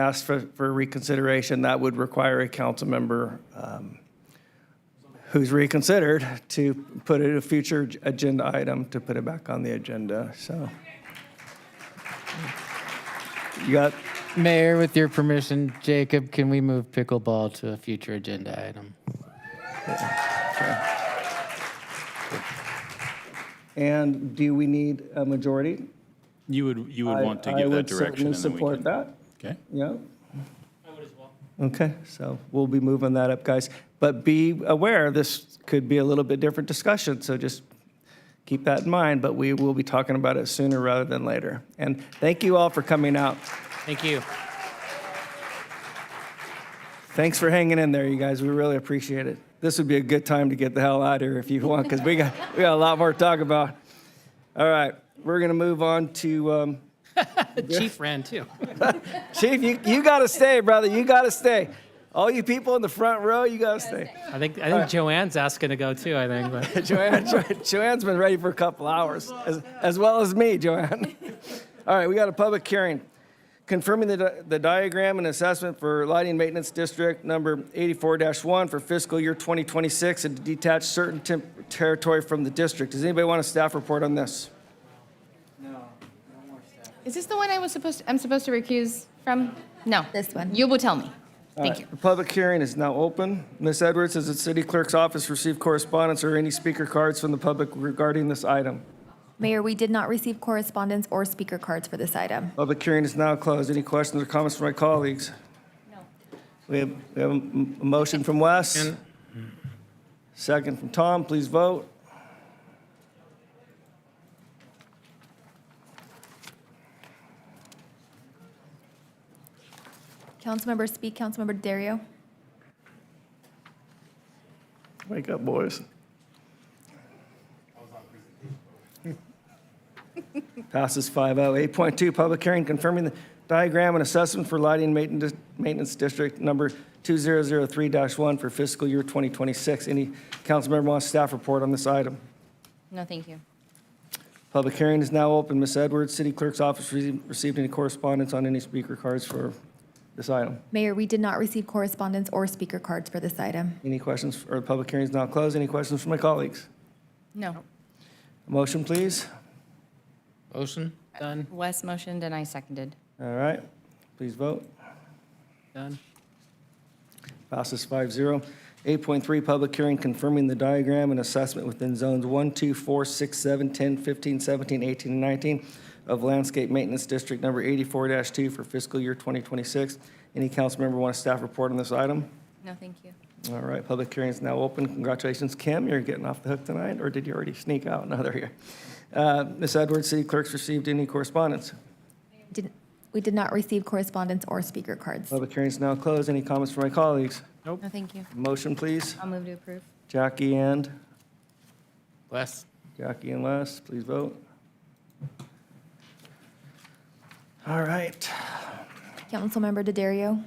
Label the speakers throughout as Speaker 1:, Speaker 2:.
Speaker 1: asked for, for reconsideration, that would require a council member um, who's reconsidered to put it a future ag- agenda item, to put it back on the agenda, so. You got,
Speaker 2: Mayor, with your permission, Jacob, can we move pickleball to a future agenda item?
Speaker 1: and do we need a majority?
Speaker 3: You would, you would
Speaker 1: I-
Speaker 3: want to
Speaker 1: I
Speaker 3: give that
Speaker 1: would
Speaker 3: direction and then
Speaker 1: certainly
Speaker 3: we can.
Speaker 1: support that,
Speaker 3: Okay,
Speaker 1: yeah. Okay, so we'll be moving that up, guys. But be aware, this could be a little bit different discussion, so just keep that in mind. But we will be talking about it sooner rather than later. And thank you all for coming out.
Speaker 2: Thank you.
Speaker 1: Thanks for hanging in there, you guys. We really appreciate it. This would be a good time to get the hell out of here if you want, because we got, we got a lot more to talk about. All right, we're going to move on to, um,
Speaker 2: Chief ran too.
Speaker 1: Chief, you, you got to stay, brother. You got to stay. All you people in the front row, you got to stay.
Speaker 2: I think, I think Joanne's asking to go too, I think, but.
Speaker 1: Joanne, Jo- Joanne's been ready for a couple hours, as, as well as me, Joanne. All right, we got a public hearing. Confirming the, di- the diagram and assessment for lighting maintenance district number 84-1 for fiscal year 2026 and to detach certain temp- territory from the district. Does anybody want a staff report on this?
Speaker 4: Is this the one I was supposed, to- I'm supposed to recuse from? No.
Speaker 5: This one.
Speaker 4: You will tell me. Thank you.
Speaker 1: The public hearing is now open. Ms. Edwards, has the city clerk's office received correspondence or any speaker cards from the public regarding this item?
Speaker 5: Mayor, we did not receive correspondence or speaker cards for this item.
Speaker 1: Public hearing is now closed. Any questions or comments from my colleagues? We have, we have a m- a motion from Wes. Second from Tom, please vote.
Speaker 5: Councilmember Speak, Councilmember Dario.
Speaker 1: Wake up, boys. Passes oh. 5-0. 8.2, public hearing confirming the diagram and assessment for lighting mainten- maintenance district number 2003-1 for fiscal year 2026. Any council member wants staff report on this item?
Speaker 4: No, thank you.
Speaker 1: Public hearing is now open. Ms. Edwards, City Clerk's office rece- received any correspondence on any speaker cards for this item?
Speaker 5: Mayor, we did not receive correspondence or speaker cards for this item.
Speaker 1: Any questions, or the public hearing is now closed. Any questions from my colleagues?
Speaker 4: No.
Speaker 1: Motion, please.
Speaker 2: Motion? Done,
Speaker 4: Wes motioned and I seconded.
Speaker 1: All right, please vote.
Speaker 2: done.
Speaker 1: Passes 5-0. 8.3, public hearing confirming the diagram and assessment within zones 1, 2, 4, 6, 7, 10, 15, 17, 18, and 19 of landscape maintenance district number 84-2 for fiscal year 2026. Any council member want a staff report on this item?
Speaker 4: No, thank you.
Speaker 1: All right, public hearing is now open. Congratulations, Kim, you're getting off the hook tonight, or did you already sneak out another year? Uh, Ms. Edwards, city clerk's received any correspondence?
Speaker 5: Did- We did not receive correspondence or speaker cards.
Speaker 1: Public hearing is now closed. Any comments from my colleagues?
Speaker 4: No, thank you.
Speaker 1: Motion, please.
Speaker 4: I'll move to approve.
Speaker 1: Jackie and,
Speaker 2: Wes?
Speaker 1: Jackie and Les, please vote. All right,
Speaker 5: Councilmember Dario.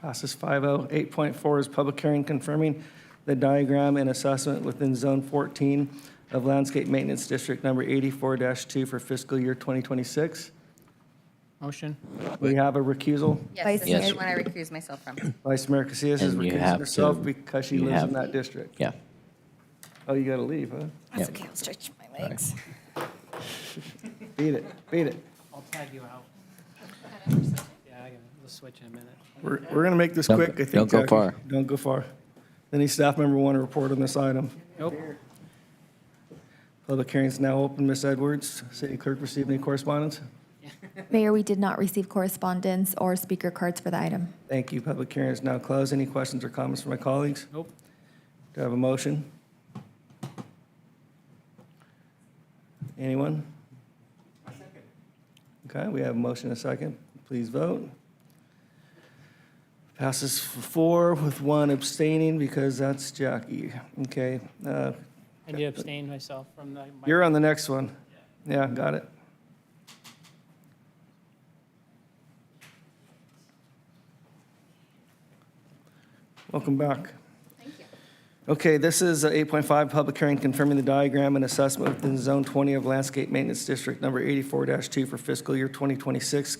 Speaker 1: passes oh. 5-0. 8.4 is public hearing confirming the diagram and assessment within Zone 14 of Landscape Maintenance District Number 84-2 for fiscal year 2026.
Speaker 2: Motion?
Speaker 1: We have a recusal.
Speaker 4: Yes, this
Speaker 5: Vice
Speaker 4: is the
Speaker 5: Mayor.
Speaker 4: one I recuse myself from.
Speaker 1: Vice Mayor Casillas is
Speaker 6: And you
Speaker 1: recusing
Speaker 6: have
Speaker 1: herself
Speaker 6: to-
Speaker 1: because she
Speaker 6: you
Speaker 1: lives
Speaker 6: have-
Speaker 1: in that district.
Speaker 6: Yeah.
Speaker 1: Oh, you gotta leave, huh?
Speaker 4: That's okay, I'll stretch my legs.
Speaker 1: Beat it, beat it.
Speaker 2: I'll tag you out. Yeah, I can, we'll switch in a minute.
Speaker 1: We're, we're gonna make this
Speaker 6: Don't-
Speaker 1: quick, I think.
Speaker 6: don't go
Speaker 1: Jackie.
Speaker 6: far.
Speaker 1: Don't go far. Any staff member want to report on this item?
Speaker 2: Nope.
Speaker 1: Public hearing's now open. Ms. Edwards, city clerk received any correspondence?
Speaker 5: Mayor, we did not receive correspondence or speaker cards for the item.
Speaker 1: Thank you. Public hearing is now closed. Any questions or comments from my colleagues?
Speaker 2: Nope.
Speaker 1: Do I have a motion? Anyone? Okay, we have a motion and a second. Please vote. Passes f- four with one abstaining because that's Jackie. Okay, uh,
Speaker 7: I did abstain myself from the. my-
Speaker 1: you're on the next one. Yeah, got it. Welcome back. Okay, this is uh, 8.5, public hearing confirming the diagram and assessment within Zone 20 of Landscape Maintenance District Number 84-2 for fiscal year 2026.